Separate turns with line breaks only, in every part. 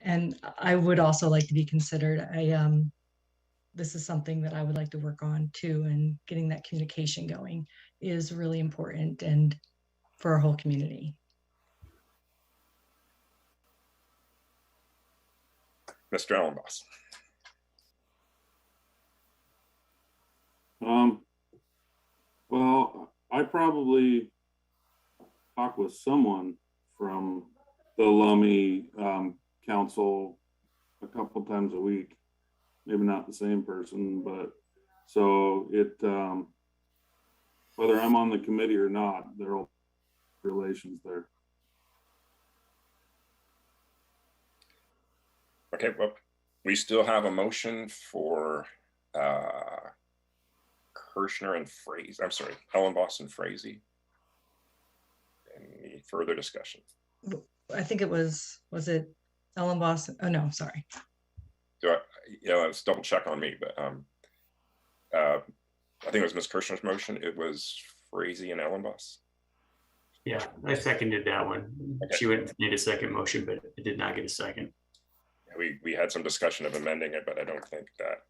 and I would also like to be considered. I, um, this is something that I would like to work on too, and getting that communication going is really important and for our whole community.
Mr. Ellenboss.
Um, well, I probably talked with someone from the Lummi um, Council a couple times a week. Maybe not the same person, but so it, um, whether I'm on the committee or not, there are relations there.
Okay, well, we still have a motion for uh, Kirschner and Frazee. I'm sorry, Ellenboss and Frazee. Any further discussion?
I think it was, was it Ellen Boston? Oh, no, sorry.
Do I, you know, it's double check on me, but um, uh, I think it was Ms. Kirschner's motion. It was Frazee and Ellenboss.
Yeah, I seconded that one. She went, made a second motion, but it did not get a second.
We, we had some discussion of amending it, but I don't think that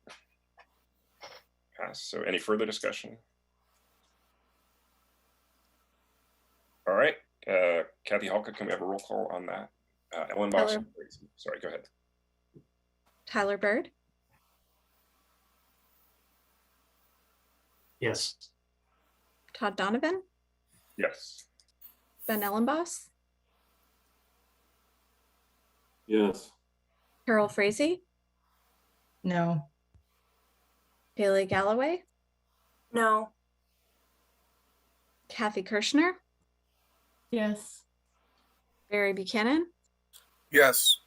passed. So any further discussion? All right, uh, Kathy Halka, can we have a roll call on that? Uh, Ellen Boss,
Hello.
sorry, go ahead.
Tyler Bird,
Yes,
Todd Donovan,
Yes,
Ben Ellenboss,
Yes,
Carol Frazee,
No,
Haley Galloway,
No.
Kathy Kirschner,
Yes.
Barry Buchanan,
Yes,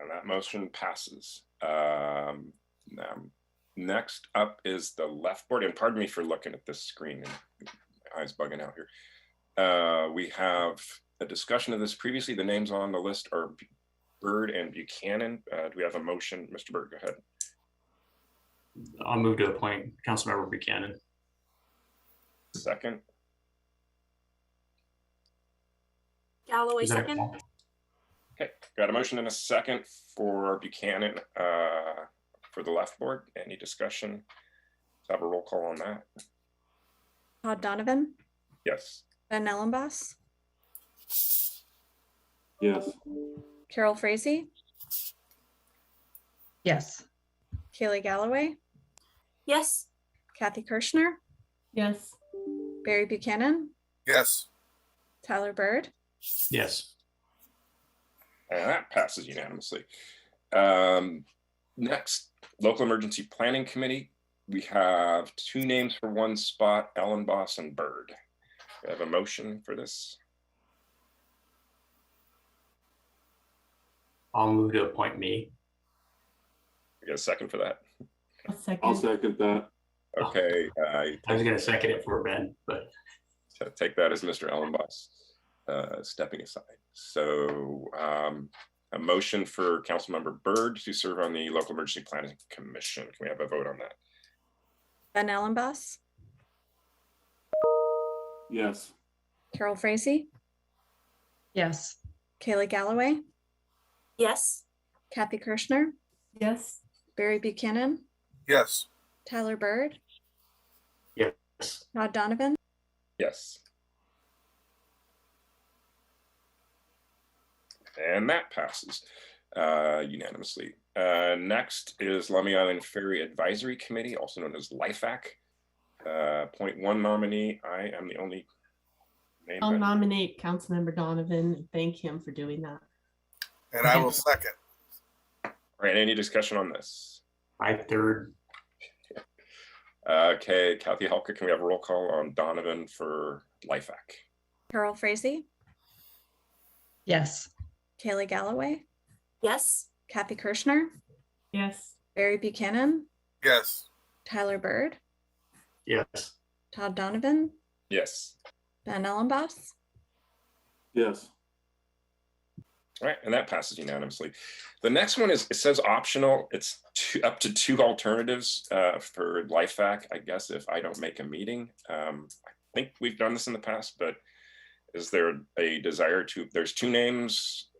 and that motion passes. Um, um, next up is the left board, and pardon me for looking at this screen and my eyes bugging out here. Uh, we have a discussion of this previously. The names on the list are B- Bird and Buchanan. Uh, do we have a motion? Mr. Bird, go ahead.
I'll move to appoint Councilmember Buchanan.
Second,
Galloway
Is that-
second.
got a motion and a second for Buchanan, uh, for the left board. Any discussion? Let's Have a roll call on that.
Todd Donovan,
Yes.
Ben Ellenboss,
yes,
Carol Frazee,
yes,
Kaylee Galloway,
Yes.
Kathy Kirschner,
Yes.
Barry Buchanan,
yes,
Tyler Bird,
Yes,
And that passes unanimously. Um, next, local emergency planning committee. We have two names for one spot, Ellen Boss and Bird. We have a motion for this.
I'll move to appoint me.
We get a second for that.
A
I'll
second.
second that.
Okay, I
I was gonna second it for Ben, but
t- take that as Mr. Ellen Boss uh, stepping aside. So um, a motion for Councilmember Bird to serve on the local emergency planning commission. Can we have a vote on that?
Ben Ellenboss,
Yes,
Carol Frazee,
yes,
Kaylee Galloway,
Yes.
Kathy Kirschner,
Yes.
Barry Buchanan,
yes,
Tyler Bird,
yes,
Todd Donovan,
Yes. And that passes uh, unanimously. Uh, Next is Lummi Island Ferry Advisory Committee, also known as LIFAC. Uh, Point one nominee, I am the only name.
I'll
that-
nominate Councilmember Donovan. and Thank him for doing that.
and I will second.
All right, any discussion on this?
I third,
Uh, Okay, Kathy Halka, can we have a roll call on Donovan for LIFAC?
Carol Frazee,
yes,
Kaylee Galloway,
Yes.
Kathy Kirschner,
Yes.
Barry Buchanan,
Yes,
Tyler Bird,
yes,
Todd Donovan,
Yes.
Ben Ellenboss,
yes,
All right, and that passes unanimously. The next one is, it says optional, it's two, up to two alternatives uh, for LifeVac, I guess, if I don't make a meeting. Um, I think we've done this in the past, but is there a desire to, there's two names